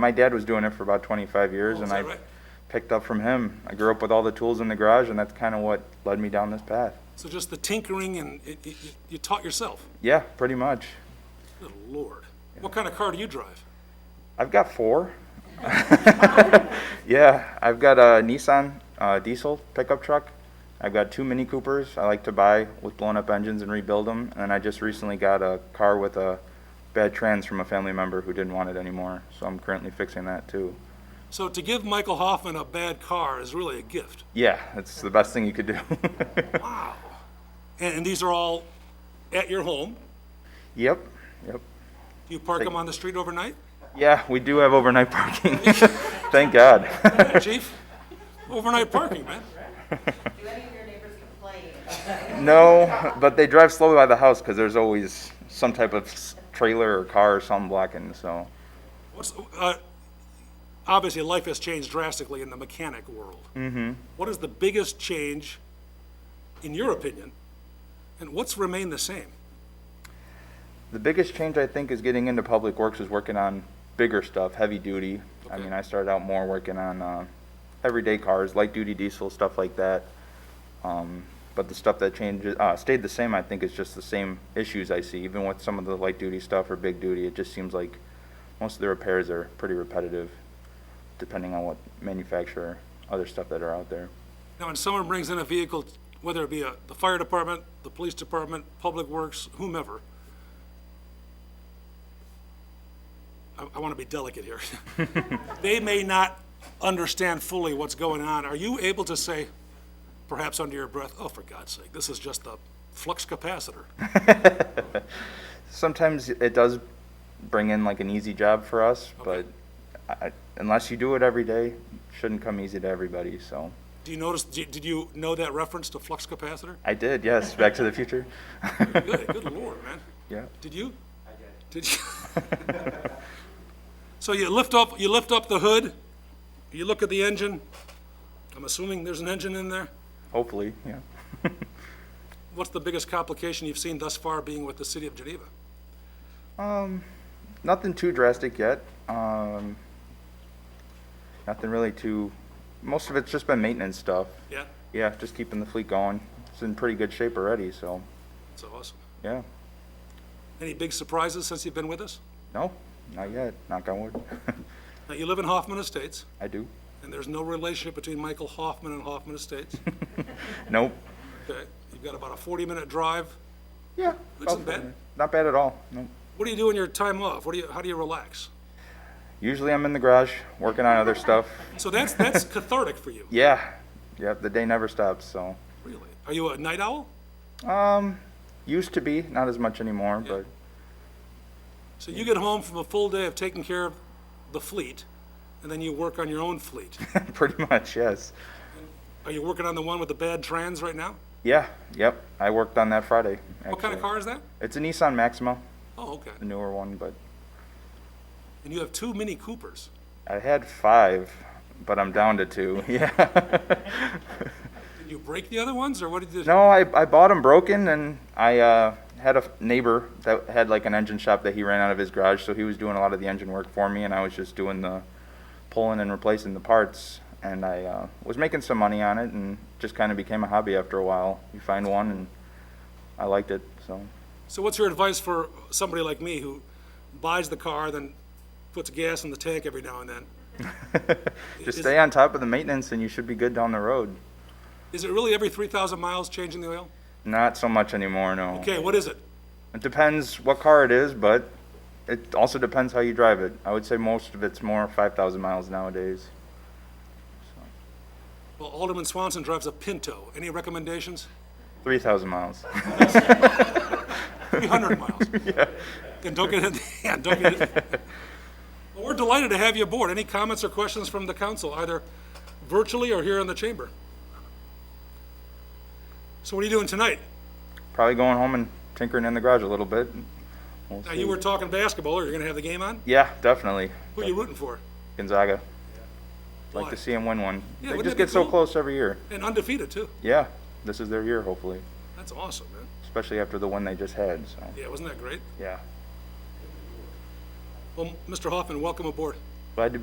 My dad was doing it for about 25 years, Oh, is and that I right? picked up from him. I grew up with all the tools in the garage, and that's kind of what led me down this path. So just the tinkering and it, it, you- you taught yourself? Yeah, pretty much. Good lord. What kind of car do you drive? I've got four. yeah, I've got a Nissan uh, diesel pickup truck. I've got two Mini Coopers I like to buy with blown up engines and rebuild them. And I just recently got a car with a bad trans from a family member who didn't want it anymore. So I'm currently fixing that too. So to give Michael Hoffman a bad car is really a gift. Yeah, it's the best thing you could do. Wow. And, and these are all at your home? yep, yep. Do you park them on the street overnight? Yeah, we do have overnight parking. Thank God. Chief? Overnight parking, man. Do any of your neighbors complain? no, but they drive slowly by the house because there's always some type of s- trailer or car or something blocking. So, What's, uh, obviously, life has changed drastically in the mechanic world. What is the biggest change, in your opinion, and what's remained the same? the biggest change I think is getting into public works is working on bigger stuff, heavy duty. I mean, I started out more working on uh, everyday cars, light duty diesel, stuff like that. Um, but the stuff that changes uh, stayed the same, I think, is just the same issues I see. Even with some of the light duty stuff or big duty, it just seems like most of the repairs are pretty repetitive, depending on what manufacturer, other stuff that are out there. Now, when someone brings in a vehicle, whether it be a, the fire department, the police department, public works, whomever, I, I want to be delicate here. They may not understand fully what's going on. Are you able to say, perhaps under your breath, oh, for God's sake, this is just a flux capacitor? Sometimes it does bring in like an easy job for us, but I, I- unless you do it every day, it shouldn't come easy to everybody. So Do you notice, did did you know that reference to flux capacitor? I did, yes. Back to the Future. Good, good lord, man. yeah. Did you? I did. Did you? So you lift up, you lift up the hood, you look at the engine, I'm assuming there's an engine in there. Hopefully, yeah. What's the biggest complication you've seen thus far being with the city of Geneva? Nothing too drastic yet. Um, nothing really too. Most of it's just been maintenance stuff. Yeah, Yeah, just keeping the fleet going. It's in pretty good shape already, so that's awesome. yeah. Any big surprises since you've been with us? No, not yet. Knock on wood. Now, you live in Hoffman Estates, I do. and there's no relationship between Michael Hoffman and Hoffman Estates. Nope. Okay, you've got about a 40-minute drive. Yeah. That's about not bad. that. Not bad at all. Nope. What do you do in your time off? What do you, how do you relax? Usually I'm in the garage working on other stuff. So that's, that's cathartic for you, Yeah, yep, the day never stops, so. really. Are you a night owl? Um, used to be, not as much anymore, but So you get home from a full day of taking care of the fleet, and then you work on your own fleet. pretty much, yes. Are you working on the one with the bad trans right now? Yeah, yep, I worked on that Friday, actually. What kind of car is that? It's a Nissan Maxima, Oh, okay. the newer one, but And you have two Mini Coopers. I had five, but I'm down to two, yeah. Did you break the other ones, or what did you? No, I, I bought them broken, and I uh, had a neighbor that had like an engine shop that he ran out of his garage, so he was doing a lot of the engine work for me, and I was just doing the pulling and replacing the parts. And I uh, was making some money on it, and just kind of became a hobby after a while. You find one, and I liked it, so. So what's your advice for somebody like me who buys the car, then puts gas in the tank every now and then? Just Is- stay on top of the maintenance, and you should be good down the road. Is it really every 3,000 miles changing the oil? Not so much anymore, no. Okay, what is it? It depends what car it is, but it also depends how you drive it. I would say most of it's more 5,000 miles nowadays. Well, Alderman Swanson drives a Pinto. Any recommendations? 3,000 miles. 300 miles. And don't get it, yeah, don't get it. Well, we're delighted to have you aboard. Any comments or questions from the council, either virtually or here in the chamber? So what are you doing tonight? Probably going home and tinkering in the garage a little bit. We'll Now, see. you were talking basketball. Are you going to have the game on? Yeah, definitely. Who are you rooting for? Gonzaga. Like Why? to see him win one. Yeah, they wouldn't just that be get so cool? close every year. And undefeated, too. Yeah, this is their year, hopefully, That's awesome, man. especially after the one they just had. So, Yeah, wasn't that great? yeah. Well, Mr. Hoffman, welcome aboard. Glad to be